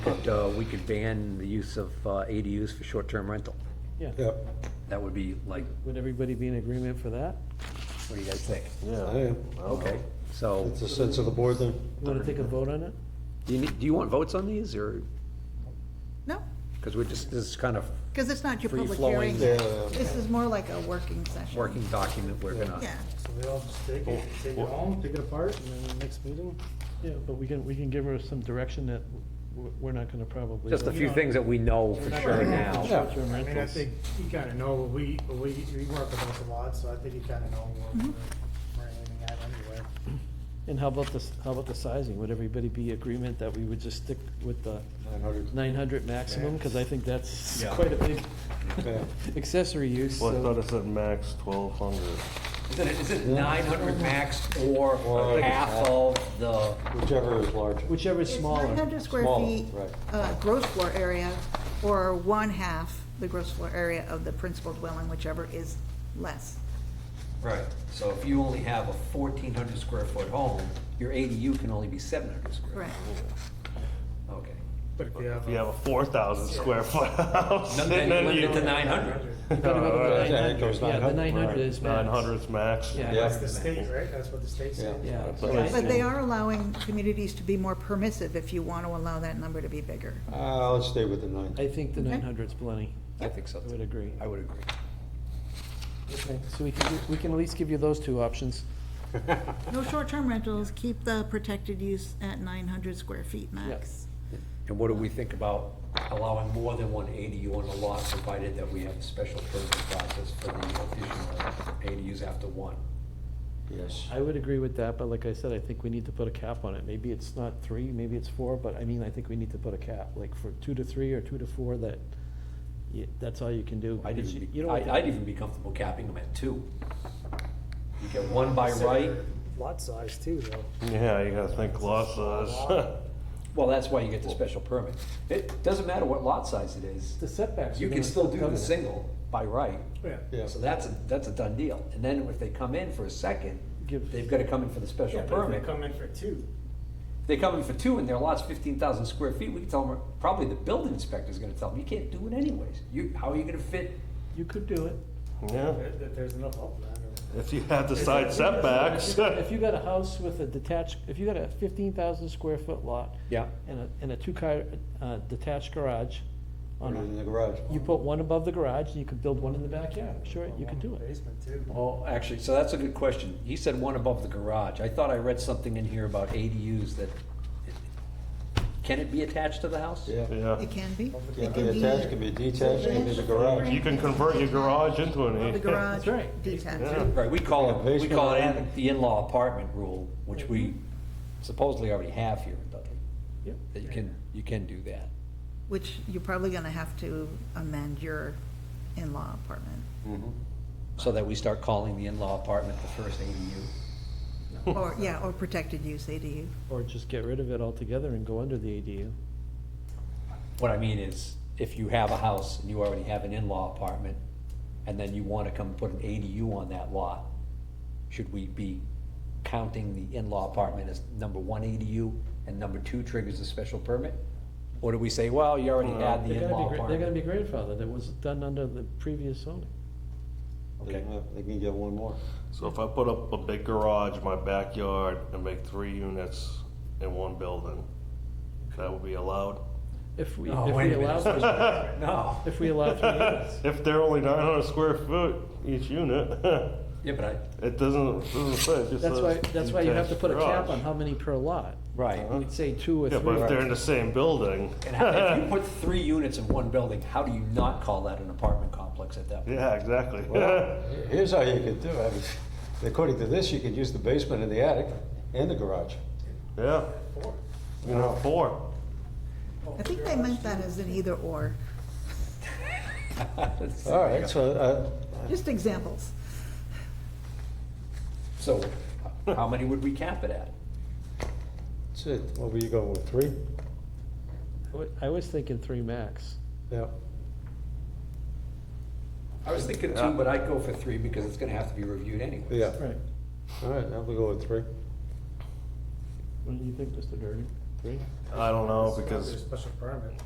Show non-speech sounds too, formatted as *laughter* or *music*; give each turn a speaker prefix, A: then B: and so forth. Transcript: A: could, uh, we could ban the use of uh, ADUs for short-term rental.
B: Yeah,
C: Yep,
A: That would be like,
B: would everybody be in agreement for that?
A: what do you guys think?
D: Yeah.
C: I am.
A: Okay, so,
C: It's a sense of the board then.
B: Want to take a vote on it?
A: do you, need- do you want votes on these, or,
E: No,
A: because we're just, this is kind of
E: because it's not your public
A: free-flowing
E: hearing.
C: Yeah, yeah, yeah.
E: This is more like a working session.
A: working document we're gonna,
E: Yeah,
F: So they all just take it, take it home, take it apart, and then the next meeting?
B: Yeah, but we can, we can give her some direction that w- we're not going to probably.
A: just a few things that we know for sure now.
C: Yeah.
B: Short-term
F: I mean, I
B: rentals.
F: think you kinda know, what we, what we, we work with us a lot, so I think you kinda know where
E: Mhm.
F: we're aiming at anyway.
B: And how about this, how about the sizing? Would everybody be agreement that we would just stick with the
C: Nine hundred.
B: nine hundred maximum? Because I think that's
A: Yeah.
B: quite a big
C: Yeah.
B: accessory use,
D: Well, I thought
B: so.
D: it said max twelve hundred.
A: Is it, is it nine hundred max or
C: Or-
A: half of the,
C: Whichever is larger.
B: Whichever is
E: It's
B: smaller.
E: 900 square
C: Smaller,
E: feet,
C: right.
E: uh, gross floor area, or one half the gross floor area of the principal dwelling, whichever is less.
A: right, so if you only have a fourteen hundred square foot home, your ADU can only be seven hundred square.
E: Correct.
A: Okay.
F: But if you
D: If you have
F: have,
D: a four thousand square foot house.
A: Then you limit it to nine hundred.
D: *laughs*
C: Yeah, it goes
B: Yeah, the
C: 900,
B: nine hundred is max.
D: Nine hundred's max.
B: Yeah.
F: that's the state, right, that's what the state said.
C: Yeah.
B: Yeah.
D: But I
E: But they are allowing communities to be more permissive if you want to allow that number to be bigger.
C: Uh, let's stay with the nine.
B: I think the
E: Okay.
B: nine hundred's plenty.
A: I think so.
B: I would agree.
A: I would agree.
B: Okay, so we can, we can at least give you those two options.
E: No short-term rentals, keep the protected use at 900 square feet max.
A: And what do we think about allowing more than one ADU on a lot, provided that we have a special permit process for the additional ADUs after one?
C: Yes.
B: I would agree with that, but like I said, I think we need to put a cap on it. Maybe it's not three, maybe it's four, but I mean, I think we need to put a cap, like for two to three or two to four, that, you- that's all you can do.
A: I'd
B: because you-
A: even,
B: you
A: be-
B: don't
A: I-
B: want
A: I'd even be comfortable capping them at two. You get one by right,
F: Lot size too, though.
D: Yeah, you gotta think lot size.
A: well, that's why you get the special permit. It doesn't matter what lot size it is,
B: The setbacks. are
A: you can
B: gonna
A: still do
B: cover
A: the
B: that.
A: single by right.
F: Yeah.
C: Yeah.
A: So that's, a that's a done deal. And then if they come in for a second,
B: Give-
A: they've gotta come in for the special
F: Yeah, but if
A: permit.
F: they come in for two,
A: They come in for two and their lot's fifteen thousand square feet, we can tell them, probably the building inspector's gonna tell them, you can't do it anyways. You, how are you gonna fit?
B: You could do
A: *laughs*
B: it.
D: Yeah,
F: that, that there's enough upland. or-
D: if you have the side setbacks.
B: If you got a house with a detached, if you got a fifteen thousand square foot lot.
A: Yeah.
B: And a, and a two car, uh, detached garage on
C: In the
B: it,
C: garage.
B: you put one above the garage, and you could build one in the backyard. Sure,
F: or
B: you
F: one
B: could do
F: in the
B: it.
F: Basement too.
A: Oh, actually, so that's a good question. He said one above the garage. I thought I read something in here about ADUs that, can it be attached to the house?
C: Yeah.
D: *laughs* Yeah,
E: It can be.
C: Can be attached, can be detached, can be the garage.
D: you can convert your garage into an. E.
E: The garage
B: That's right.
E: detached.
D: Yeah.
A: Right, we call it, we
C: Basement
A: call it in-
C: attic.
A: the in-law apartment rule, which we Mm-hmm. supposedly already have here in Dudley.
B: Yep.
A: That you can, you can do that.
E: Which you're probably gonna have to amend your in-law apartment,
A: So that we start calling the in-law apartment the first ADU.
E: or, yeah, or protected use ADU.
B: Or just get rid of it altogether and go under the ADU.
A: What I mean is, if you have a house and you already have an in-law apartment, and then you wanna come put an ADU on that lot, should we be counting the in-law apartment as number one ADU and number two triggers a special permit? Or do we say, well, you already had the
B: They're gonna
A: in-law
B: be, gra- they're gonna
A: apartment?
B: be grandfathered, that was done under the previous zoning.
C: They can have- They can get one more.
D: So if I put up a big garage in my backyard and make three units in one building, that would be allowed?
B: If we,
A: No,
B: if
A: wait
B: we
A: a minute.
B: allow, for-
A: No.
B: if we allow
D: *laughs*
B: three units.
D: If they're only nine hundred square foot each unit, *laughs*
A: Yeah, but I,
D: it doesn't, it doesn't say, it just
B: That's why,
D: says
B: that's why you have to put a cap
D: detached
B: on how many per lot.
A: right.
B: We'd say two or
D: garage. Yeah, but if they're in
B: three.
D: the same building,
A: And how- *laughs* if you put three units in one building, how do you not call that an apartment complex at that point?
D: yeah, exactly. *laughs*
C: Here's how you could do it. *laughs* I mean, According to this, you could use the basement and the attic and the garage.
D: Yeah. You know, four.
E: I think they meant that as an either-or,
C: All right, so, uh,
E: just examples.
A: *laughs* So, how many would we cap it at?
C: that's it. what were you going with, three?
B: I wa- I was thinking three max.
C: Yeah.
A: I was thinking two, but I'd go for three because it's gonna have to be reviewed anyway.
C: Yeah,
B: Right.
C: all right, now we go with three.
B: What do you think, Mr. Durgan?
G: three?
B: I don't know,
F: It's gotta be a
B: because
F: Special permit.